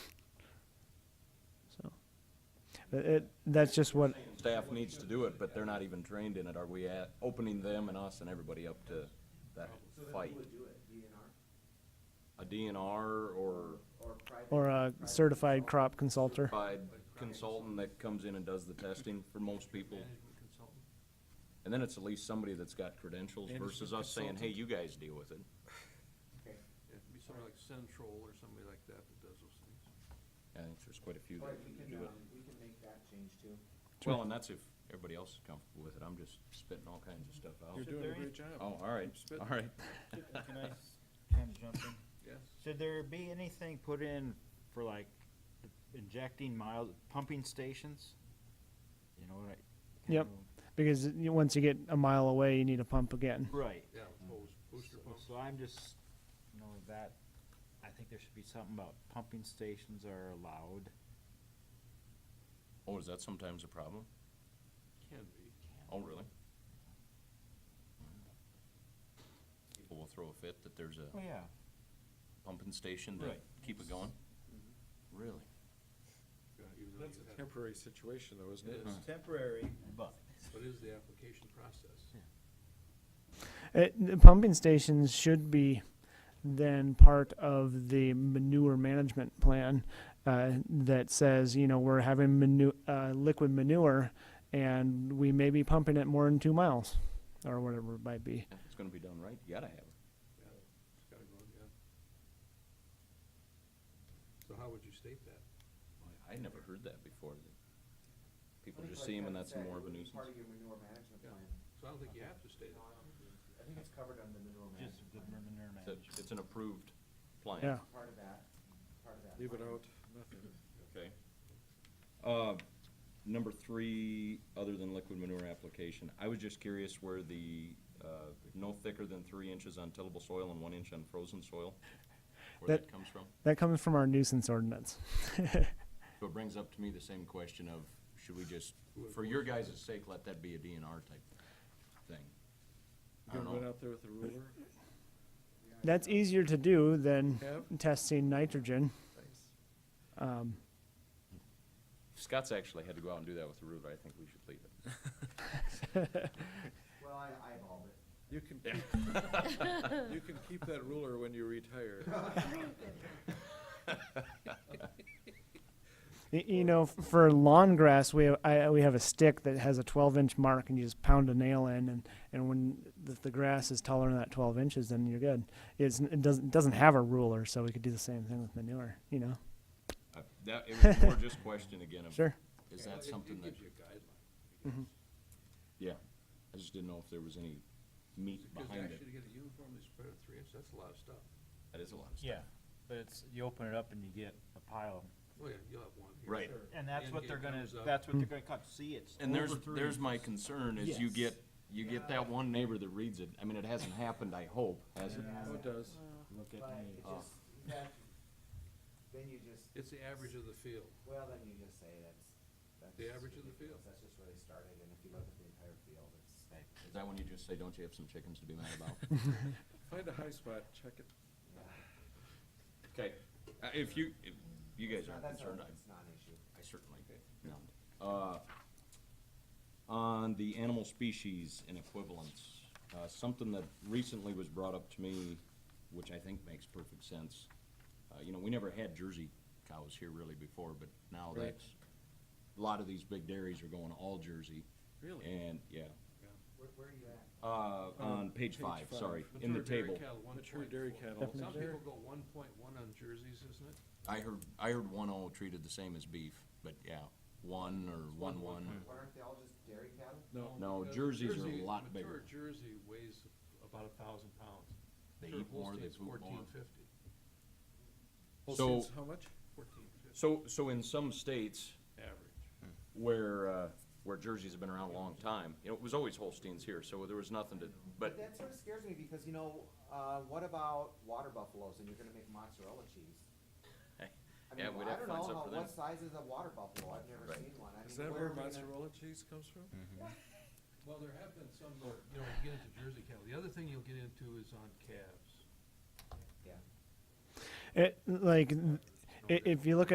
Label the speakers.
Speaker 1: It- It, that's just what,
Speaker 2: Staff needs to do it, but they're not even trained in it. Are we at, opening them and us and everybody up to that fight? A DNR or
Speaker 1: or a certified crop consultant.
Speaker 2: by consultant that comes in and does the testing for most people? And then it's at least somebody that's got credentials
Speaker 3: Management
Speaker 2: versus us saying, hey,
Speaker 3: consultant.
Speaker 2: you guys deal with it.
Speaker 3: It'd be somebody like Central or somebody like that that does those things.
Speaker 2: I think there's quite a few
Speaker 4: But
Speaker 2: that
Speaker 4: we
Speaker 2: can
Speaker 4: can,
Speaker 2: do it.
Speaker 4: um, we can make that change too.
Speaker 2: Well, and that's if everybody else is comfortable with it. I'm just spitting all kinds of stuff out.
Speaker 3: You're doing a great job.
Speaker 2: Oh, all right, all right.
Speaker 5: Can I kind of jump in?
Speaker 3: Yes.
Speaker 5: Should there be anything put in for like injecting mild, pumping stations? You know, what I
Speaker 1: Yep. Because you- once you get a mile away, you need a pump again.
Speaker 5: Right.
Speaker 3: Yeah,
Speaker 2: Mm.
Speaker 3: hose, booster
Speaker 5: So-
Speaker 3: pumps.
Speaker 5: So I'm just, you know, that, I think there should be something about pumping stations are allowed.
Speaker 2: Oh, is that sometimes a problem?
Speaker 3: Can be.
Speaker 2: Oh, really? People will throw a fit that there's
Speaker 5: Oh,
Speaker 2: a
Speaker 5: yeah.
Speaker 2: pumping station that
Speaker 5: Right.
Speaker 2: keep it going? Really?
Speaker 3: Yeah, even though
Speaker 6: That's
Speaker 3: you
Speaker 6: a
Speaker 3: have-
Speaker 6: temporary situation though, isn't
Speaker 3: It
Speaker 6: it?
Speaker 3: is,
Speaker 5: Temporary, but.
Speaker 3: but it is the application process.
Speaker 1: It, the pumping stations should be then part of the manure management plan uh, that says, you know, we're having manu- uh, liquid manure and we may be pumping it more than two miles or whatever it might be.
Speaker 2: If it's gonna be done right, you gotta have it.
Speaker 3: Yeah, it's gotta go, yeah. So how would you state that?
Speaker 2: I never heard that before. that People just see them and that's more of a nuisance.
Speaker 4: Part of your manure management
Speaker 3: Yeah.
Speaker 4: plan.
Speaker 3: So I don't think you have to state it.
Speaker 4: I think it's covered under the manure
Speaker 5: Just
Speaker 4: management
Speaker 5: the
Speaker 4: plan.
Speaker 5: manure
Speaker 2: It's
Speaker 5: management.
Speaker 2: a- It's an approved plan.
Speaker 1: Yeah.
Speaker 4: Part of that, part of that.
Speaker 6: Leave it
Speaker 4: plan.
Speaker 6: out, nothing.
Speaker 2: Okay. Uh, number three, other than liquid manure application, I was just curious where the, uh, no thicker than three inches on tillable soil and one inch on frozen soil, where
Speaker 1: That-
Speaker 2: that comes from.
Speaker 1: That comes from our nuisance ordinance.
Speaker 2: So it brings up to me the same question of, should we just, for your guys' sake, let that be a DNR type thing? I
Speaker 6: You
Speaker 2: don't
Speaker 6: gonna run
Speaker 2: know.
Speaker 6: out there with a ruler?
Speaker 1: That's easier to do than
Speaker 6: Yep.
Speaker 1: testing nitrogen.
Speaker 6: Nice.
Speaker 2: Scott's actually had to go out and do that with the root, I think we should leave it.
Speaker 4: Well, I I eyeballed it.
Speaker 6: You can keep, you can keep that ruler when you retire.
Speaker 1: Y- You know, f- for lawn grass, we have, I, we have a stick that has a 12 inch mark, and you just pound a nail in, and, and when the, the grass is taller than that 12 inches, then you're good. It's, n- it doesn't doesn't have a ruler, so we could do the same thing with manure. You know,
Speaker 2: Uh, That, it was more just question again of,
Speaker 1: sure.
Speaker 2: is that
Speaker 3: It- it
Speaker 2: something that,
Speaker 3: gives you a guideline.
Speaker 2: yeah, I just didn't know if there was any meat
Speaker 3: Because
Speaker 2: behind it.
Speaker 3: actually to get it uniformly spread at three inches, that's a lot of stuff.
Speaker 2: That is a lot of stuff.
Speaker 5: Yeah, but it's, you open it up and you get a pile.
Speaker 3: Oh, yeah, you'll have one here.
Speaker 2: Right.
Speaker 5: And that's what they're gonna,
Speaker 3: Comes up.
Speaker 5: that's what they're gonna cut, see it's
Speaker 2: And there's,
Speaker 5: over three
Speaker 2: there's my concern is you get, you get that one neighbor that reads it. I mean, it hasn't happened, I hope, has it?
Speaker 6: Oh, it does.
Speaker 5: Look
Speaker 4: But
Speaker 5: at me.
Speaker 4: it just, that, then you just,
Speaker 3: It's the average of the field.
Speaker 4: well, then you just say that's. that's
Speaker 3: The
Speaker 4: just
Speaker 3: average of the field.
Speaker 4: ridiculous. That's just where they started, and if you look at the entire field, it's.
Speaker 2: Is that when you just say, don't you have some chickens to be mad about?
Speaker 6: Find a high spot, check it.
Speaker 2: Okay, uh, if you, if you guys aren't
Speaker 4: That's
Speaker 2: concerned,
Speaker 4: a-
Speaker 2: I,
Speaker 4: It's not an issue.
Speaker 2: I certainly not. Uh, on the animal species and equivalents, uh, something that recently was brought up to me, which I think makes perfect sense. Uh, you know, we never had Jersey cows here really before, but now
Speaker 6: Right.
Speaker 2: that's, a lot of these big dairies are going all Jersey.
Speaker 6: Really?
Speaker 2: And, yeah,
Speaker 4: Where, where are you at?
Speaker 2: uh, on page
Speaker 6: page
Speaker 2: five,
Speaker 6: five.
Speaker 2: sorry, in the
Speaker 3: Mature dairy
Speaker 2: table.
Speaker 3: cattle, one
Speaker 6: Mature
Speaker 3: point
Speaker 6: dairy
Speaker 3: four.
Speaker 6: cattle.
Speaker 3: Some
Speaker 6: Definitely.
Speaker 3: people go one point one on jerseys, isn't it?
Speaker 2: I heard, I heard one O treated the same as beef, but yeah, one or one one.
Speaker 4: Why aren't they all just dairy cattle?
Speaker 6: No,
Speaker 2: No,
Speaker 3: The
Speaker 2: jerseys are a
Speaker 3: Jersey-
Speaker 2: lot
Speaker 3: Mature
Speaker 2: bigger.
Speaker 3: Jersey weighs about a thousand pounds.
Speaker 2: They
Speaker 3: Mature
Speaker 2: eat more, they
Speaker 3: Holstein's
Speaker 2: poop more.
Speaker 3: 1450,
Speaker 6: Holstein's how much?
Speaker 3: 1450
Speaker 2: So, so in some states
Speaker 3: average.
Speaker 2: where, uh, where jerseys have been around a long time, you know, it was always Holsteins here, so there was nothing to, but,
Speaker 4: That sort of scares me because, you know, uh, what about water buffaloes and you're gonna make mozzarella cheese? I mean,
Speaker 2: yeah, we'd
Speaker 4: I
Speaker 2: have to
Speaker 4: don't
Speaker 2: find
Speaker 4: know
Speaker 2: something
Speaker 4: how,
Speaker 2: for them.
Speaker 4: what size is a water buffalo? I've never
Speaker 2: Right.
Speaker 4: seen one. I
Speaker 6: Is
Speaker 4: mean,
Speaker 6: that
Speaker 4: where
Speaker 6: where
Speaker 4: are we gonna-
Speaker 6: mozzarella cheese comes from?
Speaker 2: Mm-hmm.
Speaker 3: Well, there have been some, though, you know, you get into Jersey cattle. The other thing you'll get into is on calves.
Speaker 4: Yeah.
Speaker 1: It like i- if you look